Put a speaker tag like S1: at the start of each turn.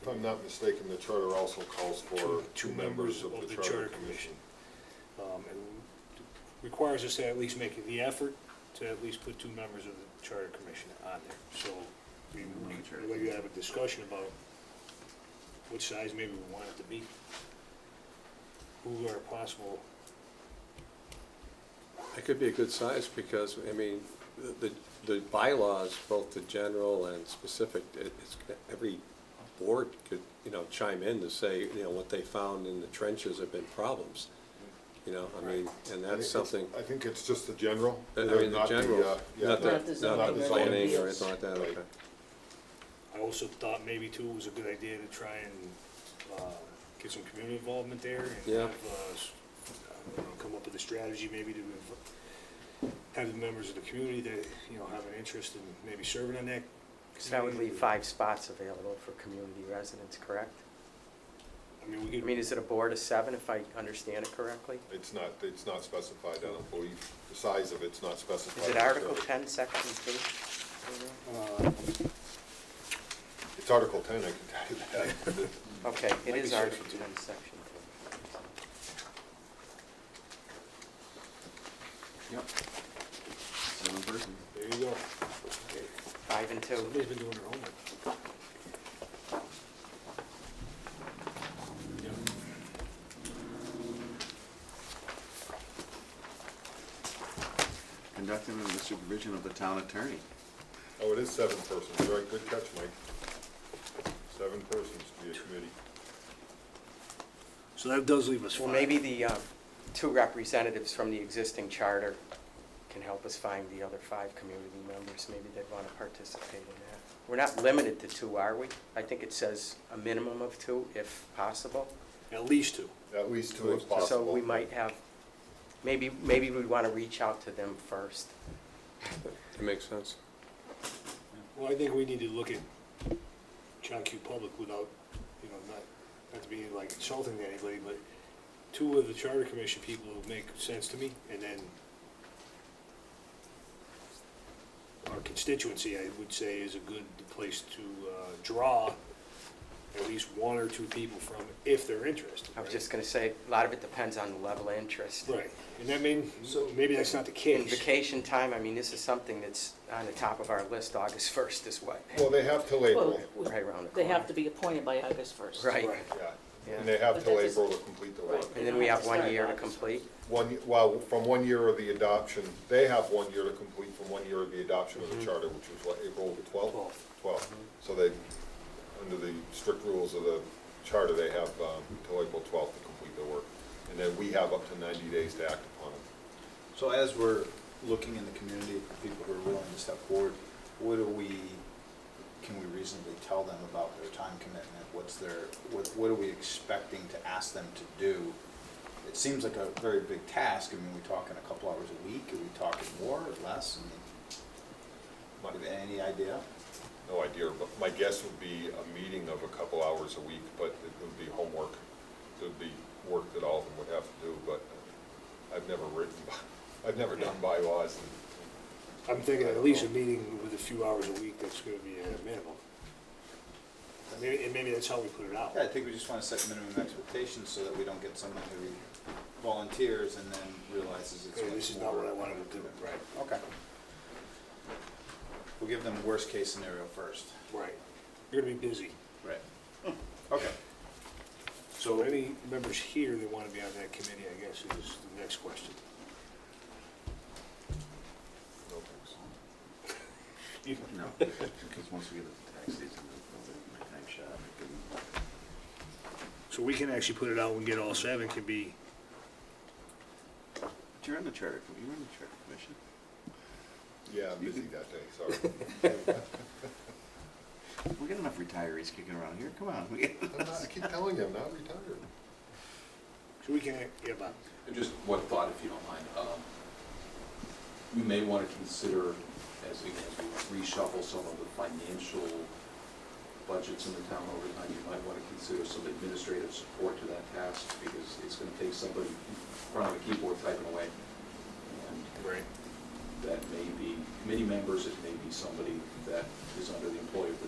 S1: if I'm not mistaken, the charter also calls for two members of the charter commission.
S2: Um, and Requires us to at least make the effort to at least put two members of the charter commission on there. So we, we- we have a discussion about which size maybe we want it to be. Who are possible,
S3: It could be a good size because, I mean, the, the bylaws, both the general and specific, it- it's, every board could, you know, chime in to say, you know, what they found in the trenches have been problems. You know, I mean, and
S1: I think
S3: that's
S1: it's-
S3: something,
S1: I think it's just the general.
S3: I mean, the
S1: not uh,
S3: general,
S1: yeah,
S3: not
S4: Not the
S3: the, not
S4: zoning
S3: the planning
S4: regulations.
S3: or anything like that,
S1: Right.
S3: okay.
S2: I also thought maybe too it was a good idea to try and, uh, get some community involvement there and
S3: Yeah.
S2: have, uh, s- I don't know, come up with a strategy maybe to inv- have the members of the community that, you know, have an interest in maybe serving on that.
S5: So that would
S2: committee.
S5: leave five spots available for community residents, correct?
S2: I mean, we
S5: I
S2: could.
S5: mean, is it a board of seven, if I understand it correctly?
S1: It's not, it's not specified, I don't believe, the size of it's not specified.
S5: Is it
S1: in the
S5: Article
S1: charter.
S5: 10, Section 2?
S2: Uh,
S1: It's Article ten, I can tell you that.
S5: Okay, it
S1: Might
S5: is
S1: be
S5: Article
S1: Section
S5: 10,
S1: two.
S5: Section 2.
S6: Yep. Seven person.
S2: There you go.
S5: Five and 2.
S2: Somebody's been doing their homework.
S6: Conducted under the supervision of the town attorney.
S1: Oh, it is seven persons, right, good catch, Mike. Seven persons to be a committee.
S2: So that does leave us five.
S5: Well, maybe the uh, two representatives from the existing charter can help us find the other five community members. Maybe they'd want to participate in that. We're not limited to two, are we? I think it says a minimum of two, if possible.
S2: At least two.
S1: At least two if
S5: So
S1: possible.
S5: we might have, maybe, maybe we'd want to reach out to them first.
S3: It makes sense.
S2: Well, I think we need to look at John Q. Public without, you know, not, not to be like insulting to anybody, but two of the charter commission people make sense to me, and then our constituency, I would say, is a good place to uh, draw at least one or two people from if they're interested.
S5: I was
S2: right?
S5: just going to say, a lot of it depends on the level of interest.
S2: Right, and that mean, so maybe that's not the
S5: In
S2: case.
S5: vacation time, I mean, this is something that's on the top of our list, August 1st is what?
S1: Well, they have till April,
S4: Well,
S5: Right around the
S4: They
S5: corner.
S4: have to be appointed by August first.
S5: Right.
S2: Right.
S1: yeah,
S5: Yeah.
S1: and they have
S4: But
S1: till
S4: that is-
S1: April to complete the work.
S4: Right.
S5: And then we have one year to complete.
S1: One, y- well, from one year of the adoption, they have one year to complete from one year of the adoption of the charter, which was what, April the twelfth?
S2: Twelfth.
S1: Twelfth, so they, under the strict rules of the charter, they have um, till April twelfth to complete their work. And then we have up to ninety days to act upon it.
S7: So as we're looking in the community for people who are willing to step forward, what do we, can we reasonably tell them about their time commitment? What's their, what, what are we expecting to ask them to do? It seems like a very big task. I mean, we talking a couple hours a week? Are we talking more or less? I mean,
S1: My-
S7: Any idea?
S1: No idea, but my guess would be a meeting of a couple hours a week, but it would be homework. It would be work that all of them would have to do, but I've never written, by- I've never done bylaws and
S2: I'm thinking at least a meeting with a few hours a week, that's gonna be uh, a minimum. And maybe, and maybe that's how we put it out.
S7: Yeah, I think we just want to set minimum expectations so that we don't get someone who volunteers and then realizes it's.
S2: Okay,
S7: much
S2: this is not what I
S7: more
S2: wanted to do, right,
S7: Okay. We'll give them worst case scenario first.
S2: right. You're gonna be busy.
S7: Right. Okay.
S2: So any members here that wanna be on that committee, I guess, is the next question.
S1: no thanks.
S2: You-
S6: No, because once we get into tax season, I'll do my tax shop. I can-
S2: So we can actually put it out and get all seven can be,
S6: But You're in the charter, com- you're in the charter commission.
S1: Yeah, I'm busy that day, sorry.
S6: We got enough retirees kicking around here, come on. we get-
S1: I'm not- I keep telling you, I'm not retired.
S2: so we can, yeah, Bob.
S8: And Just one thought, if you don't mind. Um, We may want to consider, as we as we reshuffle some of the financial budgets in the town over time, you might want to consider some administrative support to that task, because it's going to take somebody in front of a keyboard typing away. And
S2: Right.
S8: that may be committee members, it may be somebody that is under the employ of the